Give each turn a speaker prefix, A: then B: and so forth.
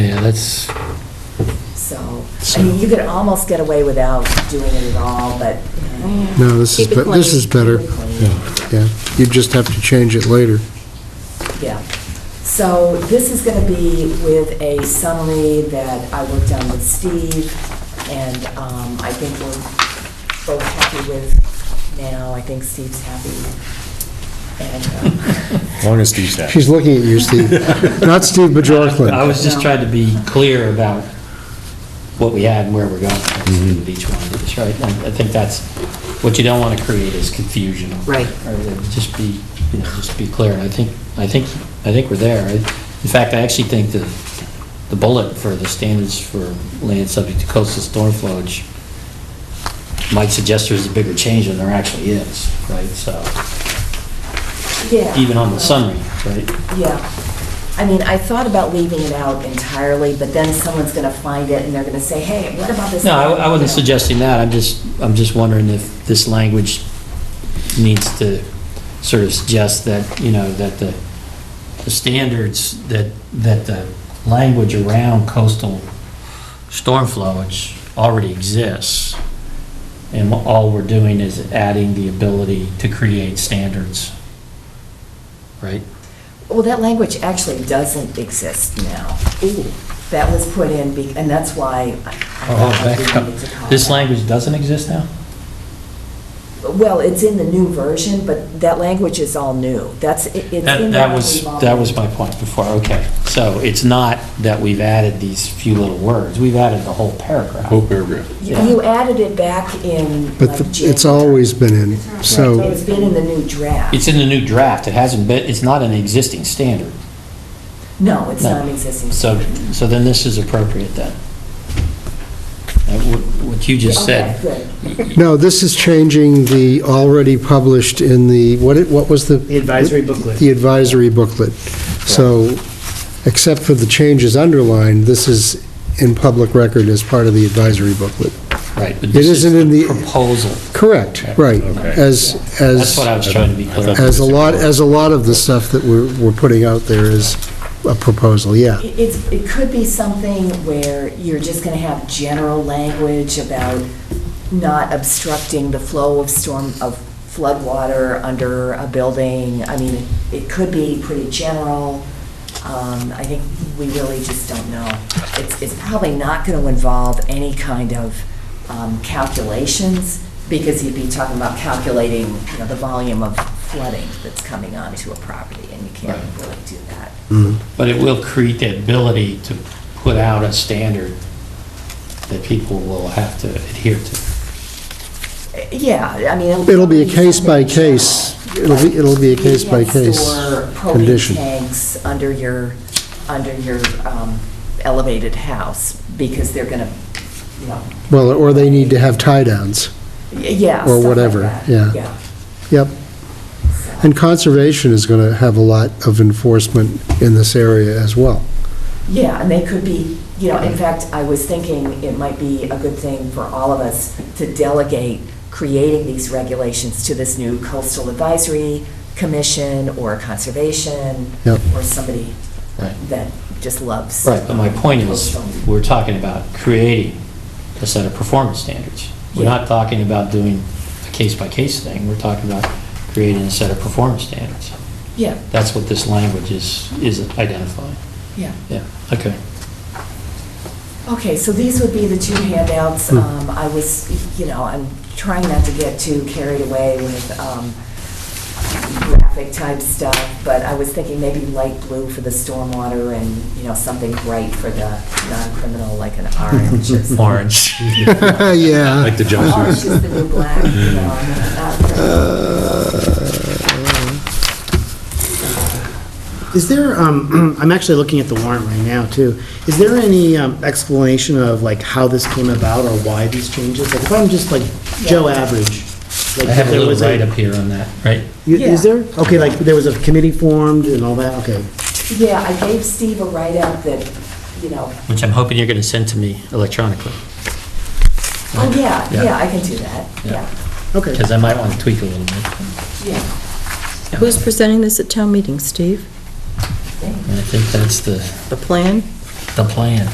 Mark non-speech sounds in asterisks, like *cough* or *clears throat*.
A: let's,
B: So, I mean, you could almost get away without doing it at all, but. uh, you know,
C: No, this is,
D: Keep it
C: be- this is better,
B: keep it clean.
C: yeah. You just have to change it later.
B: Yeah. So this is going to be with a summary that I worked on with Steve, and um, I think we're both happy with now. I think Steve's happy.
E: *laughs*
B: And, um,
F: Long as Steve's happy.
C: She's looking at you, Steve. Not Steve
E: I
C: Bajorklin.
E: was just trying to be clear about what we had and where we're going with each one of these, right? And I think that's, what you don't want to create is confusion.
D: Right.
E: Or uh, Just be, you know, just be clear. And I think, I think, I think we're there. I- In fact, I actually think the, the bullet for the standards for land subject to coastal storm flowage might suggest there's a bigger change than there actually is, right? So,
B: Yeah.
E: even on the summary, right?
B: Yeah. I mean, I thought about leaving it out entirely, but then someone's going to find it, and they're going to say, hey, what about this?
E: No, I I wasn't
B: You know.
E: suggesting that, I'm just, I'm just wondering if this language needs to sort of suggest that, you know, that the, the standards, that, that the language around coastal storm flowage already exists, and all we're doing is adding the ability to create standards, right?
B: Well, that language actually doesn't exist now. That was put in, be- and that's why I- I
E: Oh,
B: thought
E: back
B: we
E: up.
B: needed to call
E: This
B: that.
E: language doesn't exist now?
B: Well, it's in the new version, but that language is all new. That's, it- it's in
E: That,
B: that.
E: that was,
B: we've
E: that
B: all-
E: was my point before, okay. So it's not that we've added these few little words, we've added the whole paragraph.
F: Whole paragraph.
B: You you added it back in.
C: But
B: like,
C: the- it's
B: January.
C: always been in, so,
B: It's been in the new draft.
E: It's in the new draft, it hasn't been, it's not an existing standard.
B: No, it's
E: No.
B: not an existing.
E: So, so then this is appropriate then. Uh, wh- What you just
B: Okay,
E: said,
B: good.
C: no, this is changing the already published in the, what, it- what was the?
G: The advisory booklet.
C: The advisory booklet. So, except for the changes underlined, this is in public record as part of the advisory booklet.
E: right. but
C: It
E: this
C: isn't in the-
E: Proposal,
C: Correct, right, as, as.
E: that's what I was trying to be clear.
C: As a lot, as a lot of the stuff that we're, we're putting out there is a proposal, yeah.
B: It- It's, it could be something where you're just going to have general language about not obstructing the flow of storm, of floodwater under a building. I mean, it could be pretty general. Um, I think we really just don't know. It's, it's probably not going to involve any kind of um, calculations, because you'd be talking about calculating, you know, the volume of flooding that's coming onto a property, and you can't
E: Right.
B: really do that.
E: But it will create the ability to put out a standard that people will have to adhere to.
B: Yeah, I mean.
C: It'll be
B: probably
C: a case by
B: something
C: case.
B: general,
C: It'll be- it'll be a
B: like,
C: case
B: you
C: by
B: can't
C: case
B: store
C: condition.
B: Propane tanks under your, under your um, elevated house, because they're gonna, you know,
C: Well, or they need to have tie-downs.
B: y- yeah.
C: Or
B: stuff like
C: whatever,
B: that.
C: yeah. Yep. And conservation is going to have a lot of enforcement in this area as well.
B: Yeah, and they could be, you know, in fact, I was thinking it might be a good thing for all of us to delegate creating these regulations to this new coastal advisory commission or conservation
C: Yep.
B: or somebody
E: Right.
B: that just loves.
E: Right, but my point is,
B: coastal.
E: we're talking about creating a set of performance standards. We're not talking about doing a case-by-case thing, we're talking about creating a set of performance standards.
B: Yeah,
E: That's what this language is, is identifying.
B: yeah.
E: Yeah, okay.
B: Okay, so these would be the two handouts.
E: Hmm.
B: Um, I was, you know, I'm trying not to get too carried away with um, graphic type stuff, but I was thinking maybe light blue for the stormwater and, you know, something bright for the non-criminal, like an
E: *laughs*
B: orange or something.
E: Orange.
C: Yeah.
F: Like the
B: Orange
F: jumpsuit.
B: is the new black, you know, and not
E: Uh.
G: Is there, um, *clears throat* I'm actually looking at the warrant right now, too. Is there any um, explanation of, like, how this came about or why these changes? Like, if I'm just, like, Joe Average? like,
E: I have
G: if
E: a
G: there
E: little
G: was
E: write-up here on that, right?
G: You-
B: Yeah.
G: Is there? Okay, like, there was a committee formed and all that, okay.
B: Yeah, I gave Steve a write-up that, you know,
E: Which I'm hoping you're going to send to me electronically,
B: oh, yeah,
E: Yeah.
B: yeah, I can do that,
E: Yeah.
B: yeah,
G: Okay.
E: because I might want to tweak a little bit.
B: yeah.
D: Who's presenting this at town meeting, Steve?
E: And I think that's the,
D: The plan?
E: the plan.